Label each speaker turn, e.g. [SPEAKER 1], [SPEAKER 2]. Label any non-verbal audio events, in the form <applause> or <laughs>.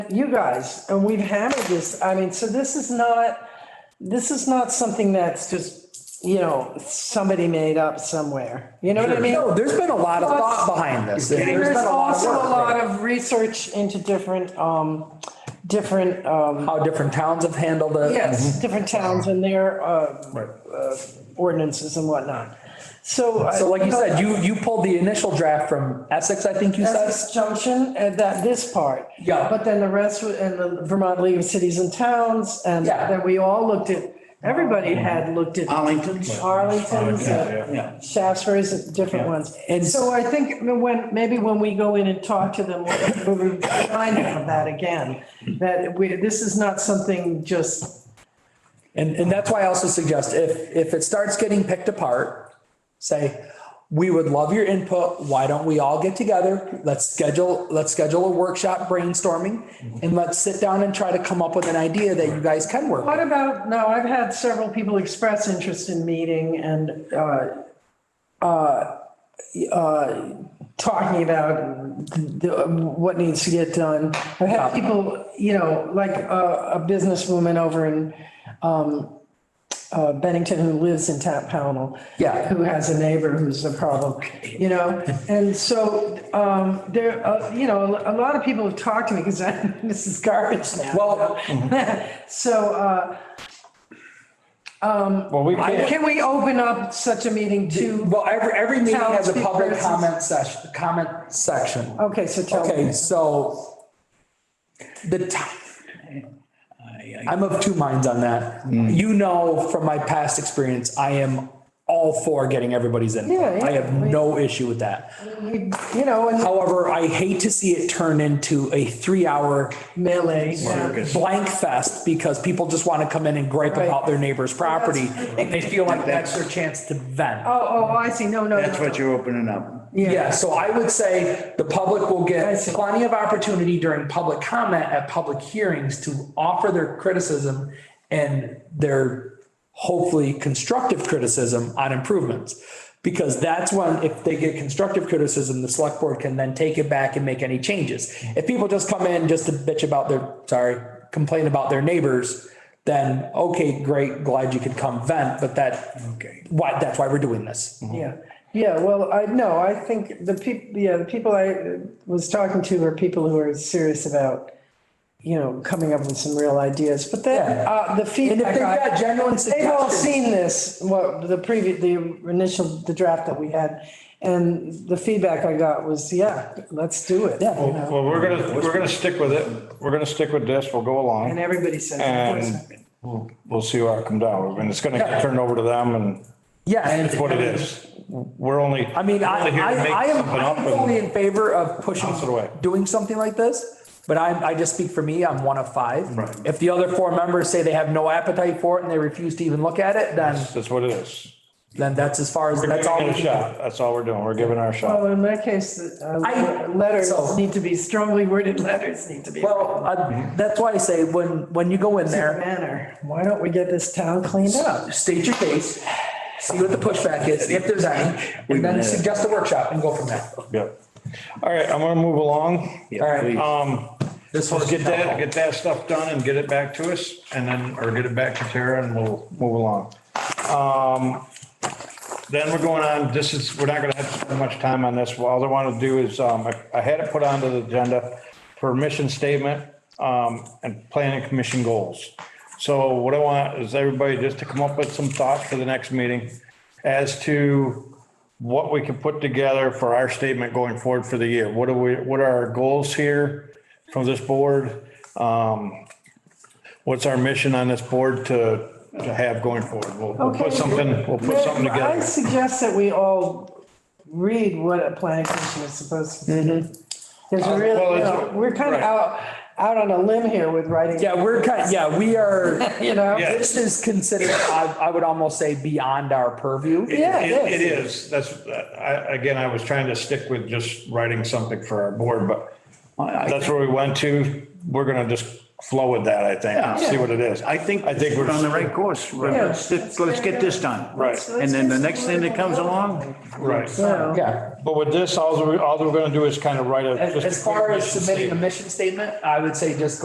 [SPEAKER 1] you guys, and we've hammered this, I mean, so this is not, this is not something that's just, you know, somebody made up somewhere, you know what I mean?
[SPEAKER 2] No, there's been a lot of thought behind this. and there's
[SPEAKER 1] There's
[SPEAKER 2] been a lot of
[SPEAKER 1] also a
[SPEAKER 2] work.
[SPEAKER 1] lot of research into different, um, different, um,
[SPEAKER 2] How different towns have handled it.
[SPEAKER 1] yes, different
[SPEAKER 2] Mm-hmm.
[SPEAKER 1] towns and their, uh, ordinances and whatnot. So.
[SPEAKER 2] So like you
[SPEAKER 1] uh,
[SPEAKER 2] said, you, you pulled the initial draft from Essex, I think you said.
[SPEAKER 1] Essex Junction and uh, that, this part.
[SPEAKER 2] Yeah.
[SPEAKER 1] But then the rest, wa- and the Vermont League of Cities and Towns, and
[SPEAKER 2] Yeah.
[SPEAKER 1] then we all looked at, everybody had looked at.
[SPEAKER 3] Arlington's.
[SPEAKER 1] Arlington's, uh,
[SPEAKER 3] Yeah.
[SPEAKER 1] Shaftesbury's, uh, different ones.
[SPEAKER 2] And-
[SPEAKER 1] So I think I mean, when, maybe when we go in and talk to them, we'll we'll remind them of that again. That we, this is not something just,
[SPEAKER 2] And, and that's why I also suggest if, if it starts getting picked apart, say, we would love your input. Why don't we all get together? Let's schedule, let's schedule a workshop brainstorming and let's sit down and try to come up with an idea that you guys can work.
[SPEAKER 1] what
[SPEAKER 2] with.
[SPEAKER 1] about, no, I've had several people express interest in meeting and, uh, talking about the, what needs to get done. I've had people, you know, like a, a businesswoman over in, um, uh, Bennington who lives in Tap Pownell.
[SPEAKER 2] Yeah.
[SPEAKER 1] Who has a neighbor who's a problem, you know? And so, um, there, uh, you know, a lot of people have talked to me because I, <laughs> this is garbage now.
[SPEAKER 2] Well,
[SPEAKER 1] So, uh,
[SPEAKER 4] Well, we can't,
[SPEAKER 1] can we open up such a meeting to,
[SPEAKER 2] well, every, every meeting has a public
[SPEAKER 1] Townspeople.
[SPEAKER 2] comment session, comment section.
[SPEAKER 1] okay, so tell me.
[SPEAKER 2] Okay, so the ti- I'm of two minds on that.
[SPEAKER 1] Mm.
[SPEAKER 2] You know, from my past experience, I am all for getting everybody's
[SPEAKER 1] Yeah,
[SPEAKER 2] input.
[SPEAKER 1] yeah.
[SPEAKER 2] I have no issue with that.
[SPEAKER 1] You you know, and
[SPEAKER 2] However, I hate to see it turn into a three-hour
[SPEAKER 1] melee.
[SPEAKER 2] blank fest because people just want to come in and gripe
[SPEAKER 1] Right.
[SPEAKER 2] about their neighbor's property and they feel like that's their chance to vent.
[SPEAKER 1] Oh, oh, I see. No, no.
[SPEAKER 3] That's
[SPEAKER 1] no.
[SPEAKER 3] what you're opening up.
[SPEAKER 2] Yeah, so I would say the public will
[SPEAKER 1] I
[SPEAKER 2] get
[SPEAKER 1] see.
[SPEAKER 2] plenty of opportunity during public comment at public hearings to offer their criticism and their hopefully constructive criticism on improvements. Because that's when, if they get constructive criticism, the select board can then take it back and make any changes. If people just come in just to bitch about their, sorry, complain about their neighbors, then, okay, great, glad you could come vent, but that,
[SPEAKER 3] Okay.
[SPEAKER 2] why, that's why we're doing this.
[SPEAKER 1] Yeah, yeah, well, I, no, I think the people, yeah, the people I uh, was talking to are people who are serious about, you know, coming up with some real ideas, but then,
[SPEAKER 2] Yeah.
[SPEAKER 1] uh, the
[SPEAKER 2] And if
[SPEAKER 1] feedback.
[SPEAKER 2] they've
[SPEAKER 1] I-
[SPEAKER 2] got genuine
[SPEAKER 1] They've all
[SPEAKER 2] suggestions-
[SPEAKER 1] seen this, what, the previous, the initial, the draft that we had, and the feedback I got was, yeah, let's do it.
[SPEAKER 2] Yeah.
[SPEAKER 1] you know?
[SPEAKER 4] well, we're gonna, we're gonna stick with it. We're gonna stick with this. We'll go
[SPEAKER 1] And
[SPEAKER 4] along
[SPEAKER 1] everybody said.
[SPEAKER 4] and we'll, we'll see where I come down. And it's gonna get turned over to them and
[SPEAKER 2] Yeah. and-
[SPEAKER 4] it's what it is. We're only.
[SPEAKER 2] I mean, I, I, I am I'm fully in favor of pushing,
[SPEAKER 4] Pass it away.
[SPEAKER 2] doing something like this, but I, I just speak for me, I'm one of five.
[SPEAKER 4] Right.
[SPEAKER 2] If the other four members say they have no appetite for it and they refuse to even look at it, then,
[SPEAKER 4] That's what it is.
[SPEAKER 2] then that's as far as,
[SPEAKER 4] We're
[SPEAKER 2] that's all.
[SPEAKER 4] giving
[SPEAKER 2] we
[SPEAKER 4] it a
[SPEAKER 2] can do.
[SPEAKER 4] shot. That's all we're doing. We're giving our shot.
[SPEAKER 1] Well, in that case, uh,
[SPEAKER 2] I-
[SPEAKER 1] letters
[SPEAKER 2] so-
[SPEAKER 1] need to be strongly worded, letters need to be.
[SPEAKER 2] Well, I- that's why I say, when, when you go in there,
[SPEAKER 1] manner. Why don't we get this town cleaned up?
[SPEAKER 2] state your case, see what the pushback is, if there's any, and then suggest a workshop and go from there.
[SPEAKER 4] Yep. All right, I'm gonna move along.
[SPEAKER 3] Yeah,
[SPEAKER 2] All right.
[SPEAKER 3] please.
[SPEAKER 4] Um,
[SPEAKER 2] This
[SPEAKER 4] Let's
[SPEAKER 2] one's
[SPEAKER 4] get that, get that stuff done and get it back to us and then, or get it back to Tara and we'll move along. Um, Then we're going on, this is, we're not gonna have to spend much time on this. All I want to do is, um, I- I had it put onto the agenda for mission statement um, and planning commission goals. So what I want is everybody just to come up with some thoughts for the next meeting as to what we can put together for our statement going forward for the year. What are we, what are our goals here from this board? Um, What's our mission on this board to, to have going forward? We'll, we'll put
[SPEAKER 1] Okay.
[SPEAKER 4] something, we'll put something
[SPEAKER 1] I
[SPEAKER 4] together.
[SPEAKER 1] suggest that we all read what a planning commission is supposed to do.
[SPEAKER 2] Mm-hmm.
[SPEAKER 1] There's a real,
[SPEAKER 4] Uh, well,
[SPEAKER 1] you
[SPEAKER 4] it's-
[SPEAKER 1] know, we're kind of
[SPEAKER 4] right.
[SPEAKER 1] out, out on a limb here with writing.
[SPEAKER 2] Yeah, we're kind, yeah, we are.
[SPEAKER 1] <laughs> You know?
[SPEAKER 4] Yeah.
[SPEAKER 2] This is considered, I, I would almost say beyond our purview.
[SPEAKER 1] Yeah,
[SPEAKER 4] It
[SPEAKER 1] it
[SPEAKER 4] it
[SPEAKER 1] is.
[SPEAKER 4] is, that's, I, again, I was trying to stick with just writing something for our board, but that's where we went to. We're gonna just flow with that, I think, and see what it is.
[SPEAKER 3] I think
[SPEAKER 4] I think
[SPEAKER 3] we're on the
[SPEAKER 4] we're,
[SPEAKER 3] right course. Let's, let's get this done.
[SPEAKER 4] Right.
[SPEAKER 3] And then the next thing that comes along,
[SPEAKER 4] right.
[SPEAKER 1] So,
[SPEAKER 2] Yeah.
[SPEAKER 4] But with this, all we're, all we're gonna do is kind of write a.
[SPEAKER 2] As,
[SPEAKER 4] just a
[SPEAKER 2] as far
[SPEAKER 4] quick
[SPEAKER 2] as
[SPEAKER 4] mission
[SPEAKER 2] submitting a
[SPEAKER 4] statement.
[SPEAKER 2] mission statement, I would say just